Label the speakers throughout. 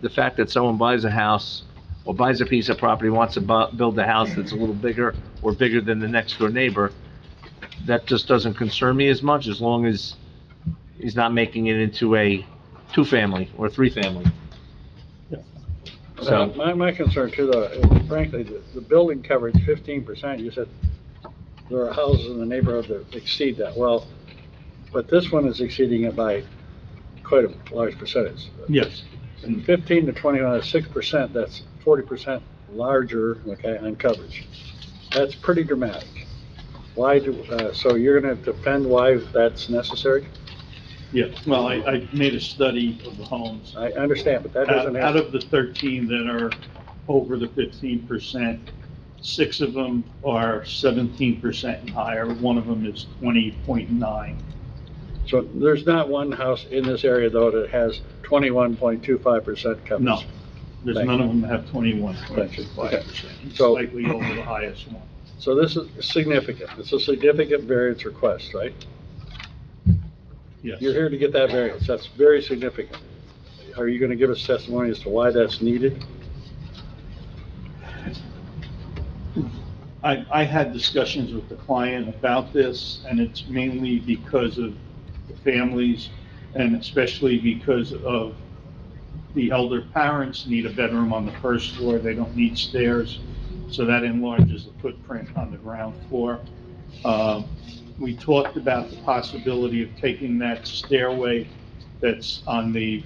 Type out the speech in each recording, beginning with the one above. Speaker 1: the fact that someone buys a house or buys a piece of property, wants to bu- build a house that's a little bigger or bigger than the next door neighbor, that just doesn't concern me as much as long as he's not making it into a two-family or three-family.
Speaker 2: Uh,
Speaker 1: So,
Speaker 2: My, my concern too, though, is frankly, the, the building coverage fifteen percent, you said there are houses in the neighborhood that exceed that, well, but this one is exceeding it by quite a large percentage.
Speaker 3: Yes.
Speaker 2: From Fifteen to twenty-one, six percent, that's forty percent larger, okay, on coverage. That's pretty dramatic. Why do, uh, so you're gonna defend why that's necessary?
Speaker 3: Yeah, well, I, I made a study of the homes.
Speaker 2: I understand, but that doesn't
Speaker 3: Out out
Speaker 2: have,
Speaker 3: of the 13 that are over the 15%, six of them are 17% and higher. One of them is 20.9.
Speaker 2: so there's not one house in this area, though, that has twenty-one point two five percent coverage.
Speaker 3: No, there's
Speaker 2: Thank
Speaker 3: none
Speaker 2: you.
Speaker 3: of them that have 21.5%. It's
Speaker 2: So-
Speaker 3: Slightly over the highest one.
Speaker 2: So this is significant. It's a significant variance request, right?
Speaker 3: Yes.
Speaker 2: You're here to get that variance. That's very significant. Are you going to give us testimony as to why that's needed?
Speaker 3: I, I had discussions with the client about this, and it's mainly because of the families, and especially because of the elder parents need a bedroom on the first floor, they don't need stairs, so that enlarges the footprint on the ground floor. Um, We talked about the possibility of taking that stairway that's on the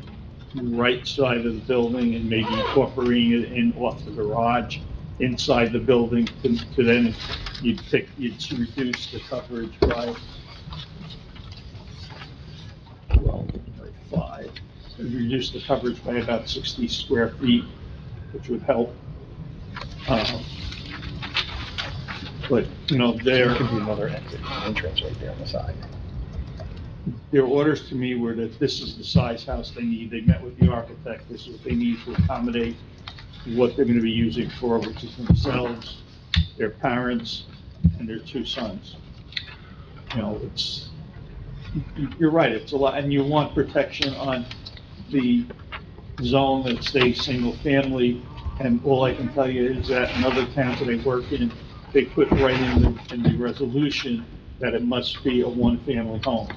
Speaker 3: right side of the building and maybe incorporating it in off the garage inside the building to to then you'd pick, you'd reduce the coverage by twelve by five. You'd Reduce the coverage by about sixty square feet, which would help. Um, But, you know, there.
Speaker 4: Could be another exit, entrance right there on the side.
Speaker 3: their orders to me were that this is the size house they need. They met with the architect, this is what they need to accommodate what they're gonna be using for, which is themselves, their parents, and their two sons. You know, it's, you're right, it's a lot, and you want protection on the zone that stays single-family, and all I can tell you is that in other towns that I work in, they put right in the, in the resolution that it must be a one-family home.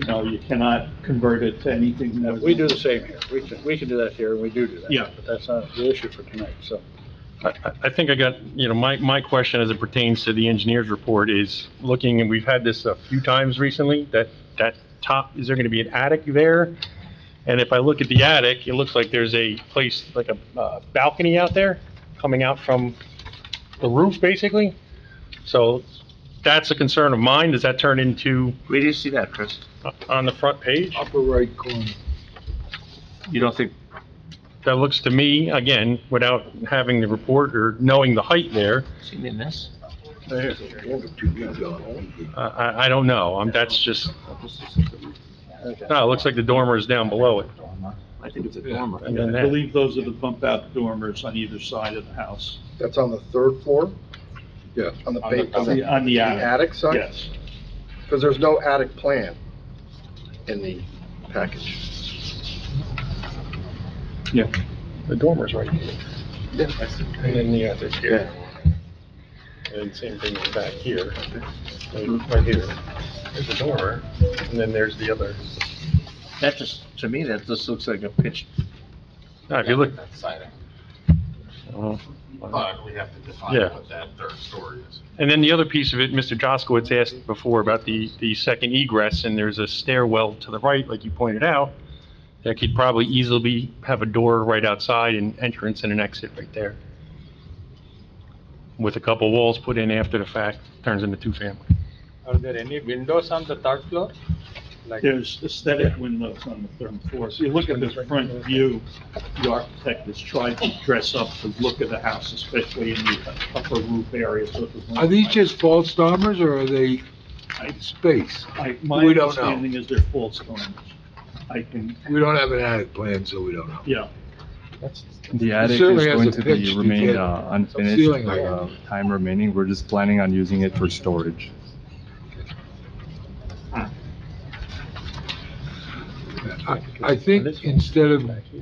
Speaker 3: You know, you cannot convert it to anything that.
Speaker 2: We do the same here. We can, we can do that here, and we do do that.
Speaker 3: Yeah.
Speaker 2: But that's not the issue for tonight, so.
Speaker 4: I, I- I think I got, you know, my, my question as it pertains to the engineer's report is looking, and we've had this a few times recently, that, that top, is there going to be an attic there? And if I look at the attic, it looks like there's a place, like a uh, balcony out there coming out from the roof, basically. So that's a concern of mine. Does that turn into,
Speaker 1: where do you see that, Chris?
Speaker 4: uh, on the front page?
Speaker 2: Upper right corner.
Speaker 1: You don't think,
Speaker 4: That looks to me, again, without having the report or knowing the height there,
Speaker 1: see me in this?
Speaker 4: I- I, I don't know. Um, that's just, no, it looks like the dormer is down below it.
Speaker 1: I think it's a dormer.
Speaker 4: And
Speaker 3: I
Speaker 4: then that,
Speaker 3: believe those are the bump-out dormers on either side of the house,
Speaker 5: That's on the third floor? Yeah. On the,
Speaker 3: on the,
Speaker 5: ba- on the
Speaker 3: on the
Speaker 5: the
Speaker 3: attic.
Speaker 5: attic side?
Speaker 3: Yes.
Speaker 5: Because there's no attic plan in the package.
Speaker 4: the dormer's right here. And then the other's here. And same thing back here, right here. There's the dormer, and then there's the other.
Speaker 1: That just, to me, that just looks like a pitched
Speaker 4: Now, if you look,
Speaker 6: That's siding,
Speaker 4: oh,
Speaker 6: but we have to define
Speaker 4: Yeah.
Speaker 6: what that third story is.
Speaker 4: And then the other piece of it, Mr. Jaskowitz asked before about the, the second egress, and there's a stairwell to the right, like you pointed out, that could probably easily have a door right outside and entrance and an exit right there. With a couple walls put in after the fact, turns into two-family.
Speaker 7: Are there any windows on the third floor? Like,
Speaker 3: There's aesthetic windows on the third floor. So you look at the front view, the architect has tried to dress up the look of the house, especially in the upper roof area. so it was-
Speaker 8: Are these just false dormers or are they
Speaker 3: I-
Speaker 8: space?
Speaker 3: I- My
Speaker 8: We don't know.
Speaker 3: understanding is they're false dormers. I can,
Speaker 8: We don't have an attic plan, so we don't know.
Speaker 3: yeah,
Speaker 9: The attic is
Speaker 8: certainly has
Speaker 9: going
Speaker 8: a
Speaker 9: to
Speaker 8: pitch
Speaker 9: be
Speaker 8: to
Speaker 9: remain
Speaker 8: get
Speaker 9: uh,
Speaker 8: some
Speaker 9: unfinished,
Speaker 8: ceiling height.
Speaker 9: uh, time remaining, we're just planning on using it for storage.
Speaker 8: I, I think instead of